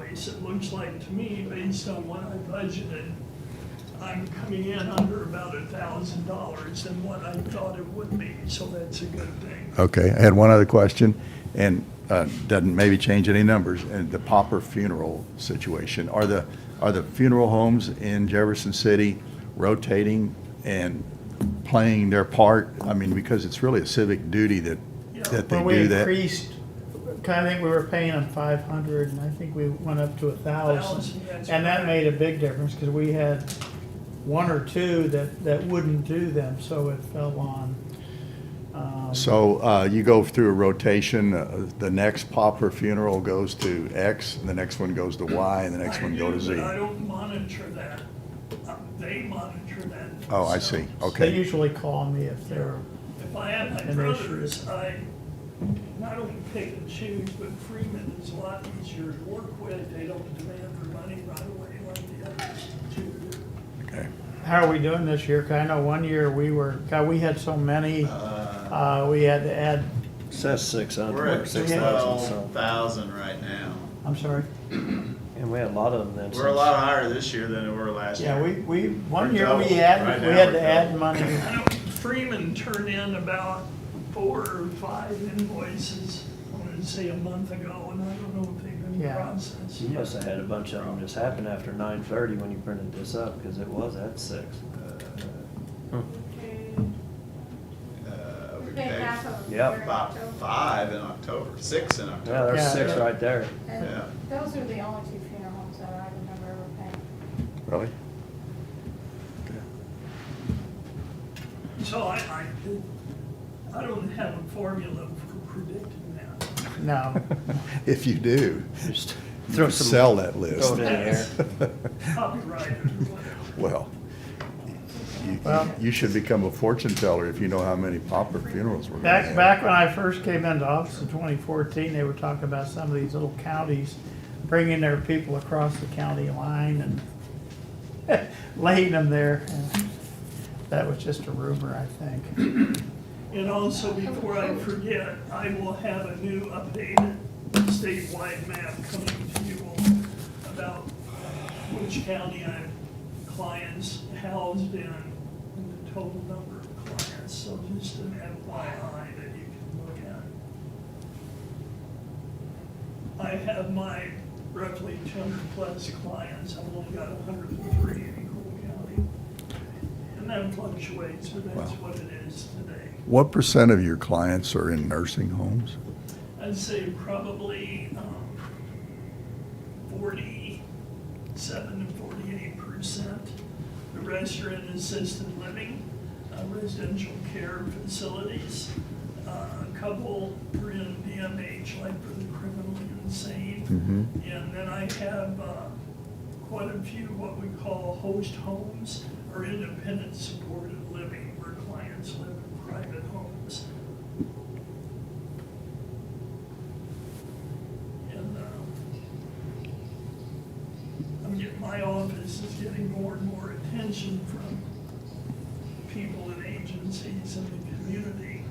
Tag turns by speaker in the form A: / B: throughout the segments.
A: weeks, it looks like to me, based on what I budgeted, I'm coming in under about a thousand dollars than what I thought it would be, so that's a good thing.
B: Okay, I had one other question, and uh, doesn't maybe change any numbers, and the pauper funeral situation. Are the, are the funeral homes in Jefferson City rotating and playing their part? I mean, because it's really a civic duty that, that they
C: When we
B: do that.
C: increased, I think we were paying them five hundred, and I think we went up to a thousand.
A: 1,000, that's
C: And
A: right.
C: that made a big difference, because we had one or two that, that wouldn't do them, so it fell on. um,
B: So uh, you go through a rotation, uh, the next pauper funeral goes to X, and the next one goes to Y, and the next
A: I
B: one go
A: do,
B: to Z.
A: but I don't monitor that. Uh, They monitor that.
B: Oh, I
A: themselves.
B: see,
C: They
B: okay.
C: usually call me if they're,
A: If I had my
C: And they should-
A: brothers, I not only pick and choose, but Freeman is a lot easier to work with. They don't demand their money right away like the others do.
B: Okay.
C: how are we doing this year? 'Cause I know one year we were, God, we had so many, uh, we had to add,
D: Says six
E: We're
D: hundred,
E: at
D: six
E: six
D: thousand,
E: twelve
D: so,
E: thousand right now.
C: I'm sorry.
D: and we had a lot of them then.
E: We're a lot higher this year than we were last year.
C: Yeah, we, we, one
E: We're
C: year we
E: double.
C: had,
E: Right
C: we
E: now
C: had
E: we're
C: to add money.
A: I know Freeman turned in about four or five invoices, I want to say a month ago, and I don't know if they've been
C: Yeah.
A: processed.
D: You must have had a bunch of them just happen after nine thirty when you printed this up, because it was at six.
E: Uh, we
F: We paid
E: paid
F: half of.
D: Yeah.
F: their
E: about
F: October.
E: five in October, six in
D: Yeah,
E: October.
D: there's
C: Yeah.
D: six right there.
F: And
E: Yeah.
F: Those are the only two funeral homes that I remember ever paying.
B: Really?
A: So I, I, I don't have a formula for predicting that.
C: No,
B: If you do,
D: Just
B: you
D: throw
B: could
D: some-
B: sell that list.
D: Throw it in there.
A: Copyright or whatever.
B: Well, you-
C: Well-
B: you should become a fortune teller if you know how many pauper funerals we're gonna
C: Back,
B: have.
C: back when I first came into office in 2014, they were talking about some of these little counties bringing their people across the county line and laying them there. And That was just a rumor, I think.
A: And also, before I forget, I will have a new updated statewide map coming to you all about which county I have clients housed in, and the total number of clients, so just an FYI that you can look at. I have my roughly two hundred plus clients, I've only got hundred and three in Cole County. And that fluctuates, but that's
B: Wow.
A: what it is today.
B: What percent of your clients are in nursing homes?
A: I'd say probably um, forty-seven to forty-eight percent. The rest are in assisted living, uh, residential care facilities. Uh, A couple are in DMH, like for the criminally insane.
B: Mhm.
A: And then I have uh, quite a few what we call host homes or independent supported living, where clients live in private homes. And, um, I'm getting, my office is getting more and more attention from people and agencies in the community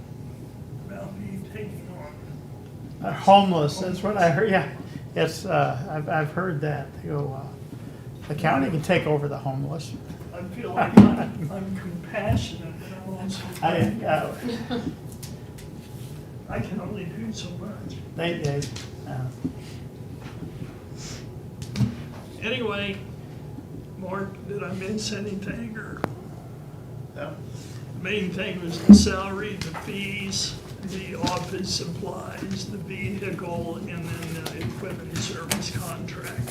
A: about me taking on.
C: Uh, Homeless, that's what I heard, yeah. It's, uh, I've, I've heard that. They go, uh, the county can take over the homeless.
A: I feel like I'm I'm compassionate, but I'm also,
C: I, uh,
A: I can only do so much.
C: they, they, uh,
A: Anyway, Mark, did I miss anything, or?
E: No?
A: Main thing was the salary, the fees, the office supplies, the vehicle, and then the equipment service contract.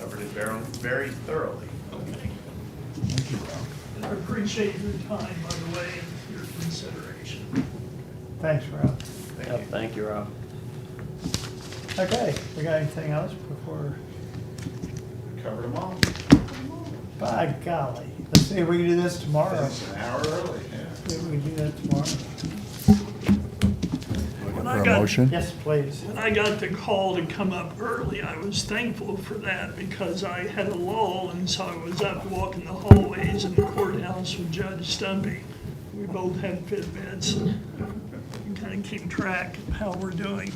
E: Covered it very, very thoroughly.
A: Okay. And I appreciate your time, by the way, and your consideration.
C: thanks, Rob.
E: Thank
D: Yep,
E: you.
D: Oh, Thank you, Rob.
C: Okay, we got anything else before?
E: Covered them all.
C: By golly, let's see if we can do this tomorrow.
E: It's an hour early, yeah.
C: See if we can do that tomorrow.
B: Looking
A: I
B: for a
A: got-
B: motion?
C: Yes, please.
A: When I got the call to come up early, I was thankful for that because I had a lull, and so I was up walking the hallways in the courthouse with Judge Stumpy. We both had Fitbits, and kind of keep track of how we're doing.